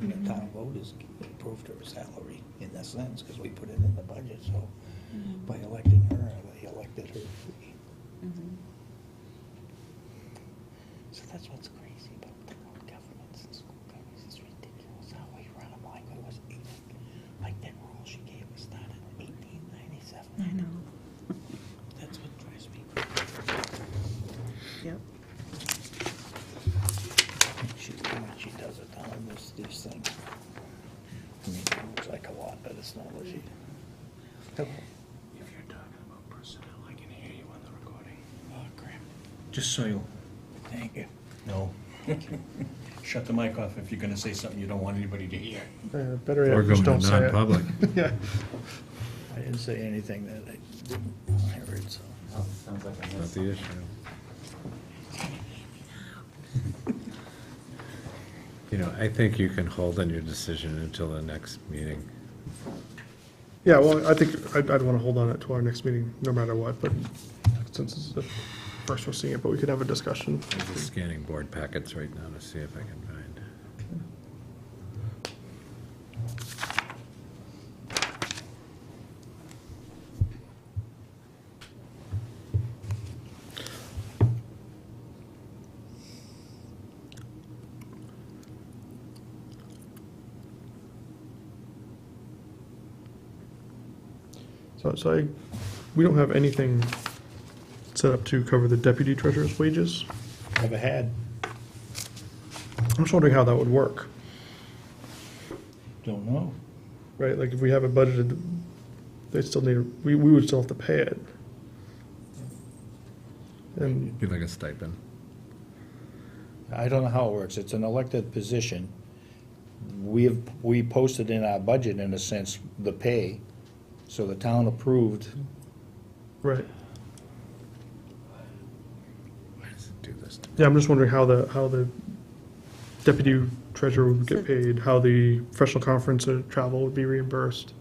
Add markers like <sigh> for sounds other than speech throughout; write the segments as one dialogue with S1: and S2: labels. S1: And the town voters approved her salary in a sense, because we put it in the budget, so by electing her, they elected her free. So that's what's crazy about town governments and school governments, it's ridiculous how we run them like it was eight, like that rule she gave us started in eighteen ninety-seven.
S2: I know,
S1: That's what drives me.
S2: yep.
S1: She, when she does it, down in this, these things. I mean, it looks like a lot, but it's not what she.
S3: If you're talking about personnel, I can hear you on the recording.
S1: Oh, crap.
S3: Just so you
S1: Thank you.
S3: know. Shut the mic off if you're gonna say something you don't want anybody to hear.
S4: Uh, Better
S5: Or
S4: yet,
S5: going
S4: just
S5: to
S4: don't say it.
S5: non-public.
S4: <laughs> Yeah,
S1: I didn't say anything that I didn't, I heard, so.
S6: Sounds like I
S5: Not
S6: missed.
S5: the issue. <laughs> You know, I think you can hold on your decision until the next meeting.
S4: yeah, well, I think, I'd, I'd wanna hold on it to our next meeting, no matter what, but since it's the first we're seeing it, but we could have a discussion.
S5: I'm just scanning board packets right now to see if I can find.
S4: So, so I, we don't have anything set up to cover the deputy treasurer's wages.
S1: Never had.
S4: I'm just wondering how that would work,
S1: Don't know.
S4: right? Like, if we have it budgeted, they still need, we, we would still have to pay it. And,
S5: Be like a stipend.
S7: I don't know how it works. It's an elected position. We have, we posted in our budget, in a sense, the pay, so the town approved.
S4: right,
S5: Why does it do this to me?
S4: yeah, I'm just wondering how the, how the deputy treasurer would get paid, how the professional conference and travel would be reimbursed.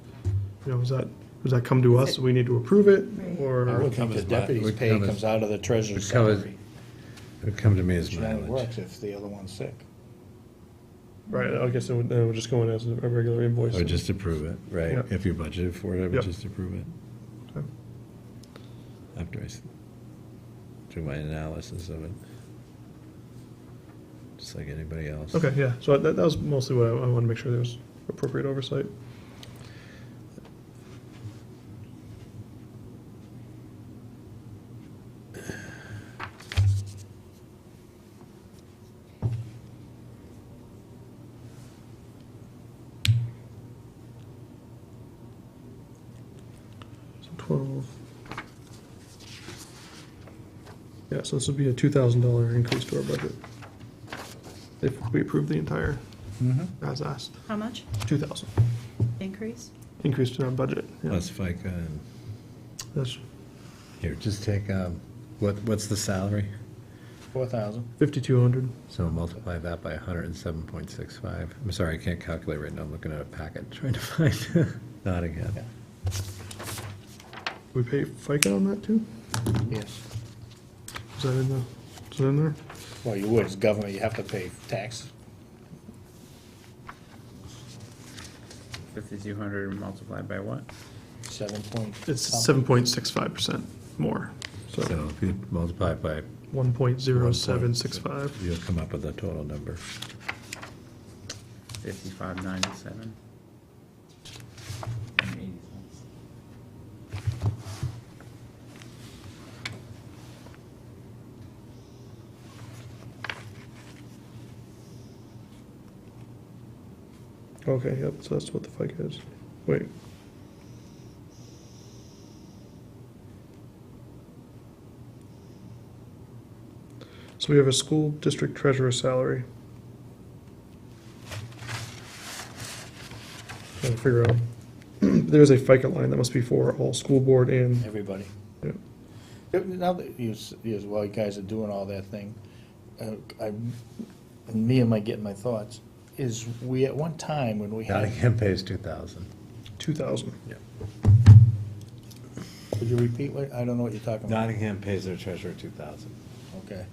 S4: You know, is that, does that come to us, we need to approve it,
S7: I
S4: or?
S7: would think the
S3: covers that.
S7: deputy's
S5: Would
S7: pay
S5: covers-
S7: comes out of the treasurer's
S5: would covers
S7: salary.
S5: It would come to me as
S7: Which only
S5: mileage.
S7: works if the other one's sick.
S4: Right, I guess it would, then it would just go in as a regular invoice.
S5: Or just approve it, right?
S4: Yeah.
S5: If you budgeted for it, I
S4: Yeah.
S5: would just approve it.
S4: Okay.
S5: After I s- do my analysis of it. Just like anybody else.
S4: Okay, yeah, so that, that was mostly what I, I wanted to make sure there was appropriate oversight. So Twelve. Yeah, so this would be a two thousand dollar increase to our budget. If we approve the entire, as asked,
S2: How much
S4: 2,000,
S2: increase?
S4: increase to our budget. yeah.
S5: Plus FICA and,
S4: That's
S5: here, just take, um, what, what's the salary?
S7: Four thousand.
S4: 5,200.
S5: So multiply that by hundred and seven point six five. I'm sorry, I can't calculate right now. I'm looking at a packet <laughs> trying to find <laughs> Nottingham.
S4: We pay FICA on that too?
S7: Yes.
S4: Is that in the, is that in there?
S7: Well, you would, it's government, you have to pay tax.
S6: Fifty-two hundred multiplied by what?
S7: Seven point.
S4: It's
S7: something.
S4: 7.65% more, so
S5: So if you multiply it by.
S4: 1.0765.
S5: You'll come up with a total number.
S6: Fifty-five ninety-seven.
S7: And eighty cents.
S4: Okay, yep, so that's what the FICA is. Wait. So we have a school district treasurer salary. Trying to figure out, <clears throat> there's a FICA line that must be for all school board and,
S7: Everybody.
S4: yeah,
S7: Yeah, Now that you, s- you, as well, you guys are doing all that thing, uh, I, and me and my, getting my thoughts, is we, at one time when we had,
S5: Nottingham pays two thousand.
S4: 2,000.
S7: could you repeat what, I don't know what you're talking about.
S5: Nottingham pays their treasurer two thousand.
S7: Okay.